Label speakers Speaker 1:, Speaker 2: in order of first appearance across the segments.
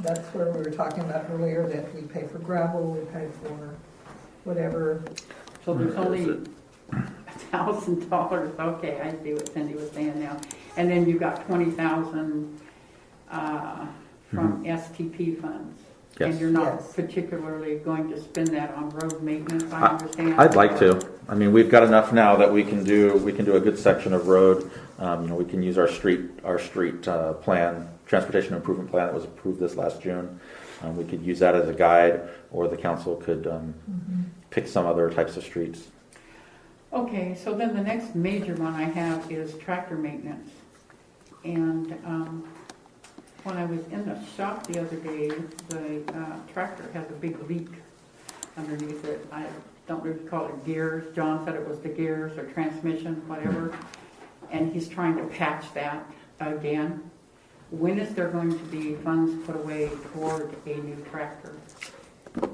Speaker 1: that's where we were talking about earlier, that we pay for gravel, we pay for whatever.
Speaker 2: So there's
Speaker 3: Where is
Speaker 2: only a thousand dollars, okay, I see what Cindy was saying now. And then you've got twenty thousand, uh, from STP funds. And
Speaker 3: Yes.
Speaker 2: you're not
Speaker 1: Yes.
Speaker 2: particularly going to spend that on road maintenance, I
Speaker 3: I-
Speaker 2: understand.
Speaker 3: I'd like to. I mean, we've got enough now that we can do, we can do a good section of road. Um, you know, we can use our street, our street, uh, plan, transportation improvement plan that was approved this last June. Um, we could use that as a guide, or the council could, um,
Speaker 2: Mm-hmm.
Speaker 3: pick some other types of streets.
Speaker 2: Okay, so then the next major one I have is tractor maintenance. And um, when I was in the shop the other day, the uh, tractor has a big leak underneath it. I don't really call it gears, John said it was the gears or transmission, whatever. And he's trying to patch that again. When is there going to be funds put away toward a new tractor?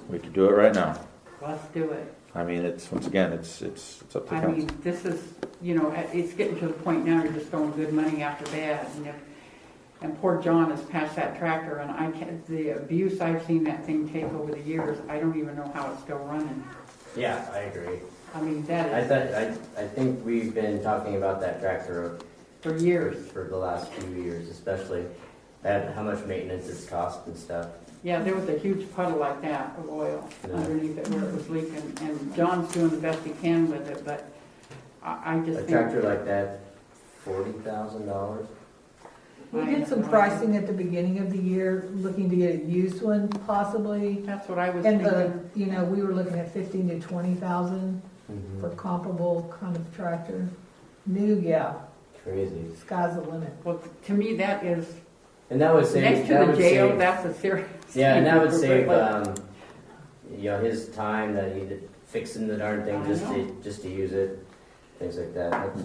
Speaker 3: We could do it right now.
Speaker 2: Let's do it.
Speaker 3: I mean, it's, once again, it's, it's, it's up to
Speaker 2: I
Speaker 3: council.
Speaker 2: mean, this is, you know, it- it's getting to the point now, you're just throwing good money after bad, and if, and poor John has passed that tractor, and I can't, the abuse I've seen that thing take over the years, I don't even know how it's still running.
Speaker 4: Yeah, I agree.
Speaker 2: I mean,
Speaker 4: I
Speaker 2: that is,
Speaker 4: thought, I, I think we've been talking about that tractor
Speaker 2: for
Speaker 4: for,
Speaker 2: years,
Speaker 4: for the last few years especially, and how much maintenance it's cost and stuff.
Speaker 2: yeah, there was a huge puddle like that of oil
Speaker 4: Yeah.
Speaker 2: underneath it where it was leaking, and John's doing the best he can with it, but I, I just
Speaker 4: A
Speaker 2: think.
Speaker 4: tractor like that, forty thousand dollars?
Speaker 1: We did some pricing at the beginning of the year, looking to get a used one possibly.
Speaker 2: That's what I was
Speaker 1: And the,
Speaker 2: thinking,
Speaker 1: you know, we were looking at fifteen to twenty thousand
Speaker 2: Mm-hmm.
Speaker 1: for comparable kind of tractor. New, yeah,
Speaker 4: Crazy.
Speaker 1: sky's the limit.
Speaker 2: well, to me, that is,
Speaker 4: And that would
Speaker 2: next
Speaker 4: save,
Speaker 2: to
Speaker 4: that
Speaker 2: the
Speaker 4: would
Speaker 2: jail,
Speaker 4: save,
Speaker 2: that's a serious.
Speaker 4: yeah, and that would
Speaker 2: thing.
Speaker 4: save,
Speaker 2: But-
Speaker 4: um, you know, his time that he did fixing the darn thing
Speaker 2: I
Speaker 4: just
Speaker 2: know.
Speaker 4: to, just to use it, things like that. That's-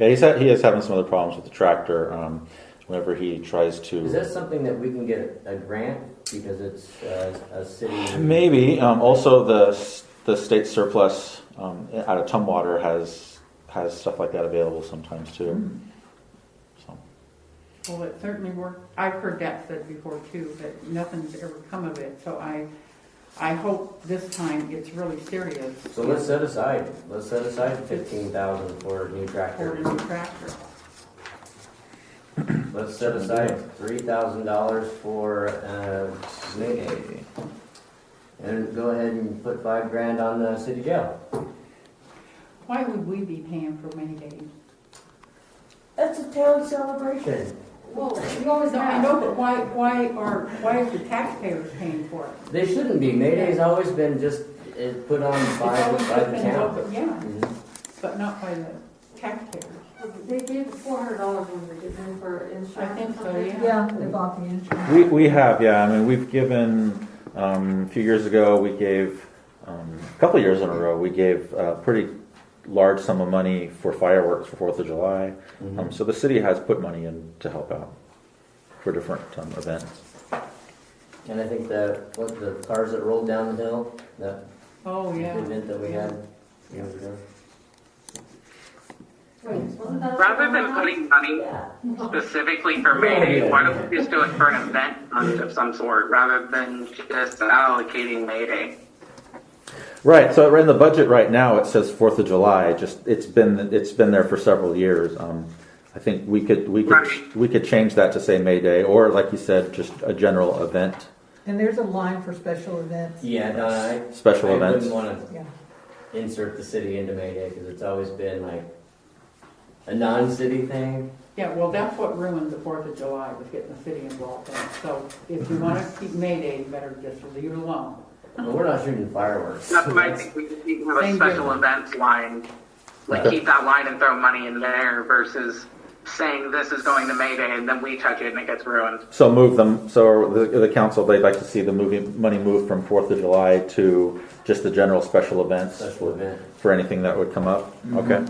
Speaker 3: Yeah, he's, ha- he is having some other problems with the tractor, um, whenever he tries to.
Speaker 4: Is that something that we can get a grant because it's uh, a city?
Speaker 3: Maybe. Um, also, the the state surplus um, out of Tumwater has has stuff like that available sometimes too. So,
Speaker 2: Well, it certainly worked, I've heard that said before too, but nothing's ever come of it, so I, I hope this time it's really serious.
Speaker 4: So let's set aside, let's set aside fifteen thousand for a new
Speaker 2: For a
Speaker 4: tractor.
Speaker 2: new tractor.
Speaker 4: Let's set aside three thousand dollars for uh, maintenance. And go ahead and put five grand on the city jail.
Speaker 2: Why would we be paying for rainy days?
Speaker 4: That's a town celebration.
Speaker 2: Well, you always. No, I know, but why, why are, why is the taxpayers paying for it?
Speaker 4: They shouldn't be. May Day's always been just uh, put on
Speaker 2: It's
Speaker 4: by,
Speaker 2: always
Speaker 4: by the
Speaker 2: been
Speaker 4: town.
Speaker 2: open, Yeah,
Speaker 4: Mhm.
Speaker 2: but not by the taxpayers.
Speaker 5: They gave four hundred dollars over, didn't they, for insurance?
Speaker 2: I think so, yeah.
Speaker 1: Yeah, they bought the insurance.
Speaker 3: we we have yeah. I mean, we've given um, a few years ago. We gave um, a couple years in a row. We gave a pretty large sum of money for fireworks for Fourth of July. Um, so the city has put money in to help out for different um, events.
Speaker 4: Mm-hmm. And I think the, what, the cars that rolled down the hill, that
Speaker 2: Oh, yeah.
Speaker 4: event that we had years ago.
Speaker 6: Rather than putting money
Speaker 4: Yeah.
Speaker 6: specifically for May Day, why don't we just do it for an event fund of some sort rather than just allocating May Day?
Speaker 3: Right. So in the budget right now, it says Fourth of July. Just it's been it's been there for several years. Um, I think we could we could
Speaker 6: Right.
Speaker 3: we could change that to say May Day or like you said, just a general event,
Speaker 1: And there's a line for special events.
Speaker 4: Yeah, no, I,
Speaker 3: special
Speaker 4: I
Speaker 3: events.
Speaker 4: wouldn't want
Speaker 1: Yeah.
Speaker 4: to insert the city into May Day because it's always been like a non-city thing.
Speaker 2: Yeah, well, that's what ruined the Fourth of July, was getting the city involved in it. So if you want to keep May Day, you better just leave it alone.
Speaker 4: But we're not shooting fireworks.
Speaker 6: That's why I think we just need to have a
Speaker 2: Thank
Speaker 6: special
Speaker 2: you.
Speaker 6: events line. Like
Speaker 3: Okay.
Speaker 6: keep that line and throw money in there versus saying this is going to May Day and then we touch it and it gets ruined.
Speaker 3: So move them. So the, the council they'd like to see the movie money move from Fourth of July to just the general special events
Speaker 4: Special event.
Speaker 3: for anything that would come up.
Speaker 4: Mm-hmm.
Speaker 3: Okay,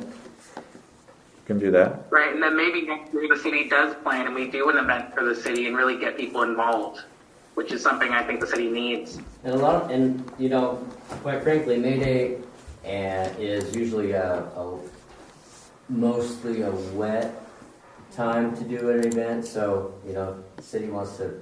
Speaker 3: can do that.
Speaker 6: Right, and then maybe next year the city does plan and we do an event for the city and really get people involved, which is something I think the city needs.
Speaker 4: And a lot, of- and you know, quite frankly, May Day and is usually a, a mostly a wet time to do an event. So you know, the city wants to